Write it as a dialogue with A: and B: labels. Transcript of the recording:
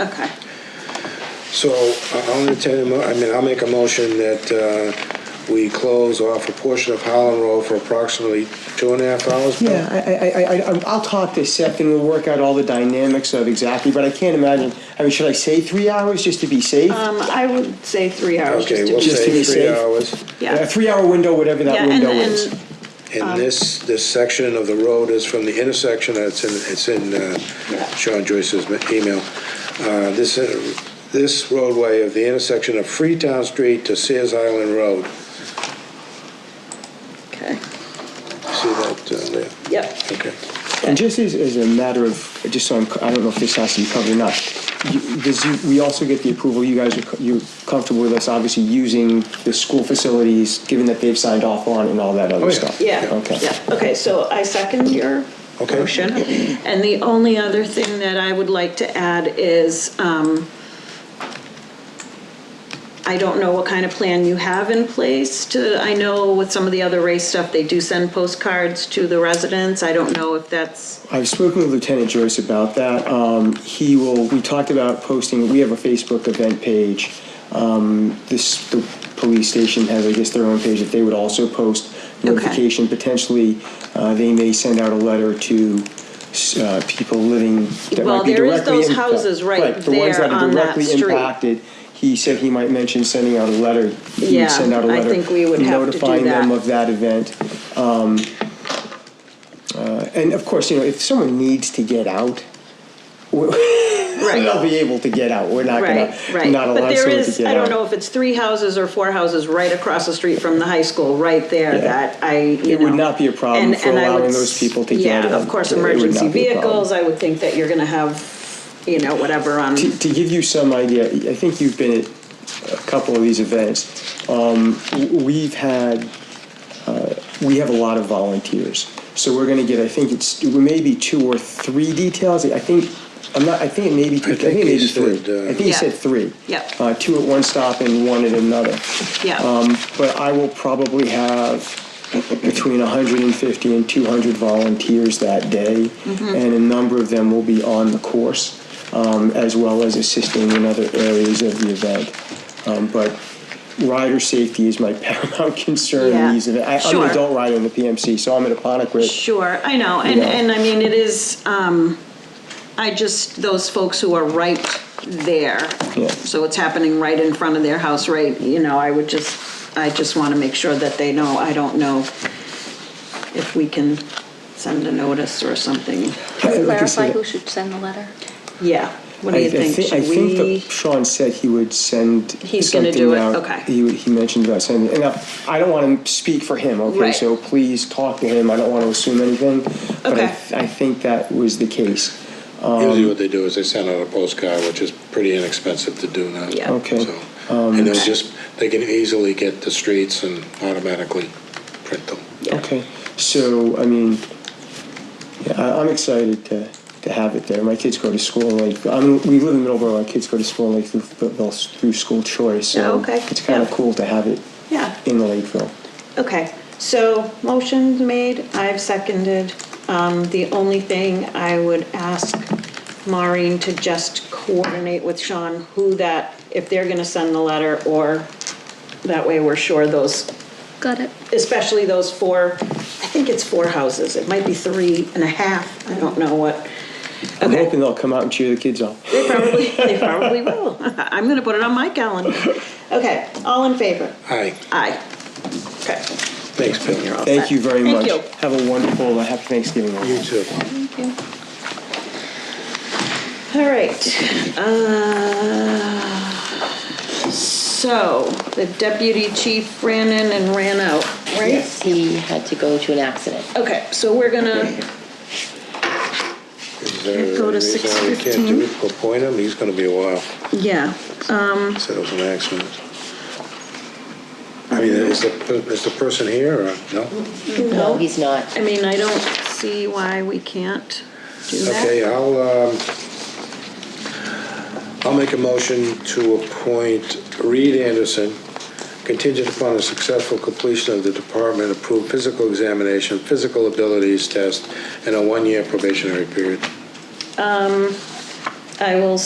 A: Okay.
B: So I- I'll entertain, a mo- I mean, I'll make a motion that uh, we close off a portion of Holland Road for approximately two and a half hours. Bill?
C: Yeah, I, I, I, I, I'll talk to Seth and we'll work out all the dynamics of exactly, but I can't imagine, I mean, should I say three hours just to be safe?
A: Um, I would say three hours.
B: Okay,
A: just to
B: we'll
A: be-
C: Just to
B: say
C: be
B: three
C: safe.
B: hours.
C: A
A: Yeah,
C: three-hour window, whatever
A: Yeah,
C: that
A: and-
C: window
A: and-
C: is. Um,
B: And this, this section of the road is from the intersection, it's in, it's in uh,
A: Yeah.
B: Sean Joyce's ma- email. Uh, This, uh, this roadway of the intersection of Freetown Street to Sears Island Road.
A: okay,
B: See that uh, there?
A: yep.
B: Okay.
C: And just as, as a matter of, just so I'm, I don't know if this has to be covered or not, you, does you, we also get the approval, you guys are, co- you're comfortable with us obviously using the school facilities, given that they've signed off on it and all that
B: Oh,
C: other
B: yeah.
C: stuff?
A: Yeah,
C: Okay.
A: yeah, okay, so I second your
B: Okay.
A: motion. And the only other thing that I would like to add is, um, I don't know what kind of plan you have in place to, I know with some of the other race stuff, they do send postcards to the residents. I don't know if that's,
C: I've spoken with Lieutenant Joyce about that. Um, he will, we talked about posting, we have a Facebook event page. Um, this, the police station has, I guess, their own page that they would also post
A: Okay.
C: notification. Potentially, uh, they may send out a letter to, uh, people living that
A: Well,
C: might be directly.
A: there is those
C: impa-
A: houses right
C: the ones
A: there
C: that are
A: on that
C: directly
A: street.
C: impacted. He said he might mention sending out a letter. He would
A: Yeah,
C: send out a
A: I
C: letter
A: think we would have to do
C: Notifying them
A: that.
C: of that event. Um, uh, And of course, you know, if someone needs to get out, we- they'll be able to get out. We're not
A: right,
C: gonna
A: right.
C: not
A: But
C: allow
A: there
C: someone
A: is,
C: to get out.
A: I don't know if it's three houses or four houses right across the street from the high school, right there,
C: Yeah.
A: that I, you
C: It would
A: know.
C: not be a problem
A: And-
C: for
A: and I would
C: allowing
A: s-
C: those people to get
A: Yeah, of
C: in.
A: course,
C: It would not
A: emergency
C: be a problem.
A: vehicles, I would think that you're gonna have, you know, whatever on,
C: To, to give you some idea, I think you've been at a couple of these events. Um, w- we've had, uh, we have a lot of volunteers. So we're gonna get, I think it's, maybe two or three details. I think, I'm not, I think it may be, two- I think
B: think
C: it may
B: he
C: be three.
B: said, uh,
C: I think he
A: Yeah.
C: said three.
A: Yep.
C: Uh, two at one stop and one at another. um,
A: yeah,
C: but I will probably have between 150 and 200 volunteers that day,
D: Mm-hmm.
C: and a number of them will be on the course, um, as well as assisting in other areas of the event. Um, but rider safety is my paramount concern.
A: Yeah.
C: In these events. I, I'm
A: Sure.
C: an adult rider in the PMC, so I'm at a Aponequid.
A: sure, I know, and,
C: Yeah.
A: and I mean, it is, um, I just, those folks who are right there.
C: Yeah.
A: So it's happening right in front of their house, right, you know, I would just, I just wanna make sure that they know, I don't know if we can send a notice or something,
D: Can we
C: Like I said,
D: clarify who should send the letter?
A: yeah, what
C: I,
A: do
C: I
A: you think,
C: think, I
A: should
C: think
A: we?
C: that Sean said he would send
A: He's gonna
C: something
A: do it,
C: out.
A: okay.
C: He, would- he mentioned about sending, and I, I don't want to speak for him, okay?
A: Right.
C: So please talk to him. I don't want to assume anything, but
A: Okay.
C: I, I think that was the case.
A: Um,
B: Usually what they do is they send out a postcard, which is pretty inexpensive to do now.
A: Yeah.
C: Okay.
B: So, And they'll just, they can easily get the streets and automatically print them.
C: Okay. So I mean, yeah, I, I'm excited to, to have it there. My kids go to school. Like I'm, we live in Middleborough. Our kids go to school like through, through, through school choice. So
A: Yeah, Oh, okay.
C: it's kind of
A: Yeah.
C: cool to have it
A: Yeah.
C: in Lakeville.
A: Okay, so motion's made, I've seconded. Um, The only thing I would ask Maureen to just coordinate with Sean who that, if they're gonna send the letter or that way we're sure those,
D: Got it.
A: especially those four, I think it's four houses, it might be three and a half, I don't know what.
C: I'm
A: Okay.
C: hoping they'll come out and cheer the kids on.
A: They probably, they probably will. I'm gonna put it on my calendar. Okay, all in favor?
B: Aye,
A: Aye. Okay,
B: thanks, Bill.
A: you're all
C: Thank
A: set.
C: you very
A: Thank
C: much.
A: you.
C: Have a wonderful, uh, happy Thanksgiving. all.
B: You too.
A: All right. uh, So the deputy chief ran in and ran out, right?
E: Yes, he had to go to an accident.
A: Okay, so we're gonna,
B: Is there
A: Go to
B: a reason why we can't do
A: 6:15.
B: it? Appoint him, he's gonna be a while,
A: yeah,
B: said it was an accident. I mean, is the, is the person here or no?
E: No, he's not.
A: I mean, I don't see why we can't do
B: Okay,
A: that.
B: I'll, um, I'll make a motion to appoint Reed Anderson contingent upon the successful completion of the department-approved physical examination, physical abilities test, and a one-year probationary period.
A: I will